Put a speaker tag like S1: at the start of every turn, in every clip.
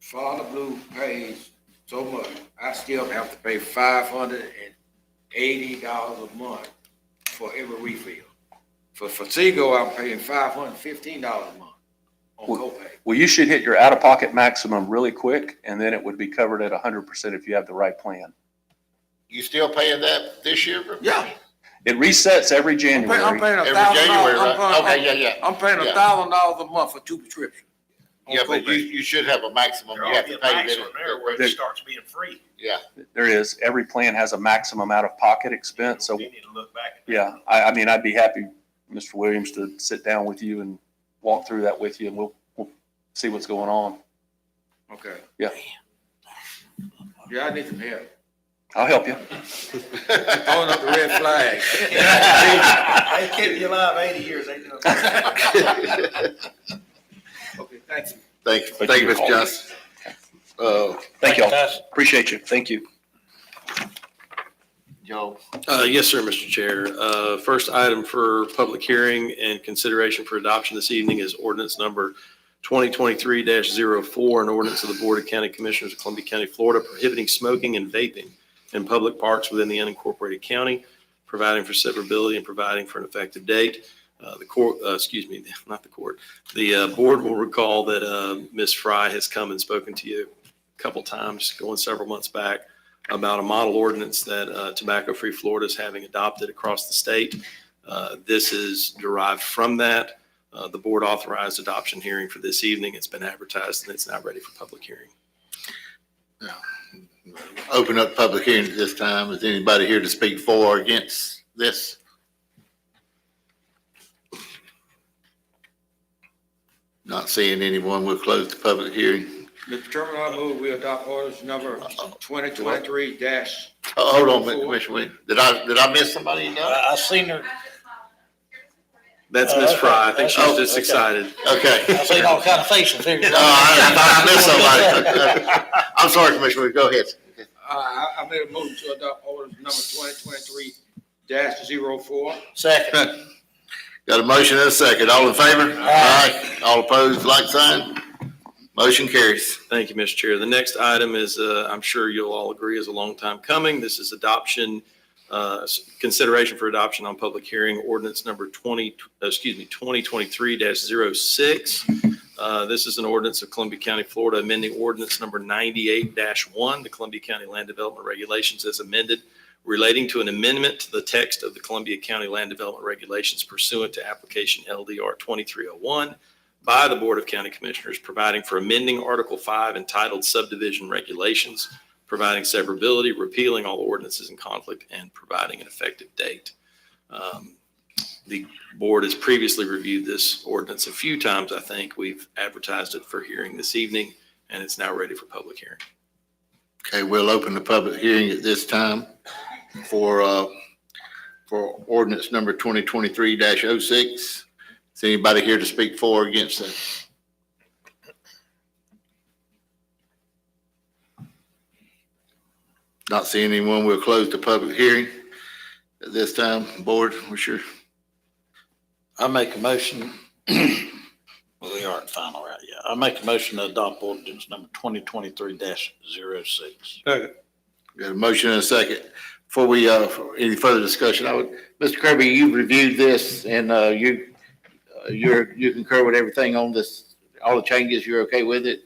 S1: Florida Blue pays so much, I still have to pay five hundred and eighty dollars a month for every refill. For Fatigo, I'm paying five hundred and fifteen dollars a month on
S2: Well-
S1: copay.
S2: Well, you should hit your out-of-pocket maximum really quick, and then it would be covered at hundred percent if you have the right plan.
S3: You still paying that this year? bro?
S1: Yeah,
S2: It resets every
S1: I'm paying, I'm
S2: January.
S1: paying a
S3: Every
S1: thousand
S3: January,
S1: dollars.
S3: right?
S1: I'm paying-
S3: Okay, yeah, yeah.
S1: I'm paying a
S3: Yeah.
S1: thousand dollars a month for two prescriptions. on
S3: Yeah, but you,
S1: copay.
S3: you should have a maximum.
S4: There
S3: You
S4: ought
S3: have
S4: to be
S3: to
S4: a
S3: pay
S4: maximum there where
S3: that.
S4: it starts being free.
S3: Yeah,
S2: There is, every plan has a maximum out-of-pocket expense, so,
S4: We need to look back. at that.
S2: yeah, I, I mean, I'd be happy, Mr. Williams, to sit down with you and walk through that with you, and we'll, we'll see what's going on.
S1: Okay.
S2: Yeah.
S1: Yeah, I need some help.
S2: I'll help you.
S1: Throwing up the red flag.
S4: They kept you alive eighty years, ain't no.
S1: Okay, thank you.
S3: Thank, thank you, Mr. Johnson. Uh,
S2: Thank y'all. Appreciate you. Thank you.
S3: Joe,
S5: Uh, Yes, sir, Mr. Chair. Uh, First item for public hearing and consideration for adoption this evening is ordinance number 2023-04, an ordinance of the Board of County Commissioners of Columbia County, Florida, prohibiting smoking and vaping in public parks within the unincorporated county, providing for severability and providing for an effective date. Uh, The court, uh, excuse me, not the court, the uh, board will recall that uh, Ms. Fry has come and spoken to you a couple times, going several months back, about a model ordinance that uh, Tobacco Free Florida is having adopted across the state. Uh, This is derived from that. Uh, The board authorized adoption hearing for this evening. It's been advertised and it's now ready for public hearing.
S3: open up public hearing at this time. Is anybody here to speak for or against this? Not seeing anyone. We'll close the public hearing.
S1: Mr. Chairman, I move we adopt orders number twenty twenty-three dash.
S3: Oh, Hold on, a minute, Commissioner Williams. Did I, did I miss somebody? No?
S6: I seen her,
S5: That's
S6: Oh,
S5: Ms.
S6: okay.
S5: Fry. I think she's
S6: Oh,
S5: just
S6: okay.
S5: excited.
S3: Okay.
S6: I seen all kind of faces here.
S3: No, I, I missed somebody. I'm sorry, Commissioner. Williams. Go ahead.
S1: I, I made a motion to adopt orders number twenty twenty-three dash zero four.
S6: Second.
S3: Got a motion and a second. All in favor?
S6: Aye.
S3: All opposed, like sign. Motion carries.
S5: Thank you, Mr. Chair. The next item is, uh, I'm sure you'll all agree, is a long time coming. This is adoption, uh, s- consideration for adoption on public hearing, ordinance number 20, uh, excuse me, 2023-06. Uh, This is an ordinance of Columbia County, Florida, amending ordinance number 98-1, the Columbia County Land Development Regulations as amended, relating to an amendment to the text of the Columbia County Land Development Regulations pursuant to application LDR 2301, by the Board of County Commissioners, providing for amending Article 5 entitled subdivision regulations, providing severability, repealing all ordinances in conflict, and providing an effective date. Um, The board has previously reviewed this ordinance a few times, I think. We've advertised it for hearing this evening, and it's now ready for public hearing.
S3: Okay, we'll open the public hearing at this time for, uh, for ordinance number twenty twenty-three 6 Is anybody here to speak for or against that? Not seeing anyone. We'll close the public hearing at this time. Board, what's your,
S6: I make a motion, well, we aren't final right yet. I make a motion to adopt ordinance number twenty twenty-three 6
S3: Got a motion and a second. Before we, uh, for any further discussion, I would, Mr. Kirby, you reviewed this and, uh, you, uh, you're, you concur with everything on this, all the changes, you're okay with it?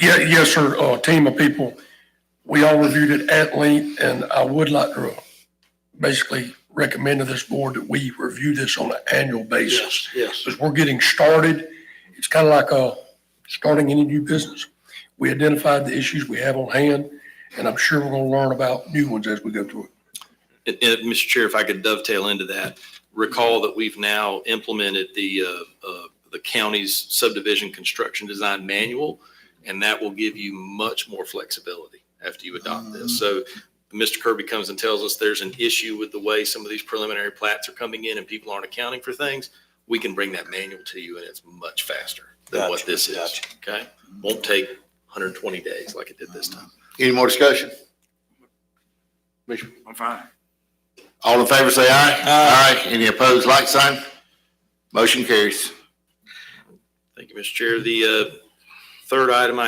S7: Yeah, yes, sir, uh, team of people. We all reviewed it at length and I would like to uh, basically recommend to this board that we review this on an annual basis.
S6: yes.
S7: As we're getting started, it's kind of like, uh, starting any new business. We identified the issues we have on hand and I'm sure we're going to learn about new ones as we go through it.
S5: And, and, Mr. Chair, if I could dovetail into that, recall that we've now implemented the, uh, uh, the county's subdivision construction design manual, and that will give you much more flexibility after you adopt this.
S6: Mm-hmm.
S5: So Mr. Kirby comes and tells us there's an issue with the way some of these preliminary plats are coming in and people aren't accounting for things. We can bring that manual to you and it's much faster than what
S6: Gotcha,
S5: this is,
S6: gotcha.
S5: okay? Won't take 120 days like it did this
S6: Mm-hmm.
S5: time.
S3: Any more discussion?
S1: I'm fine.
S3: All in favor, say aye. Aye. Any opposed, like sign? Motion carries.
S5: Thank you, Mr. Chair. The uh, third item I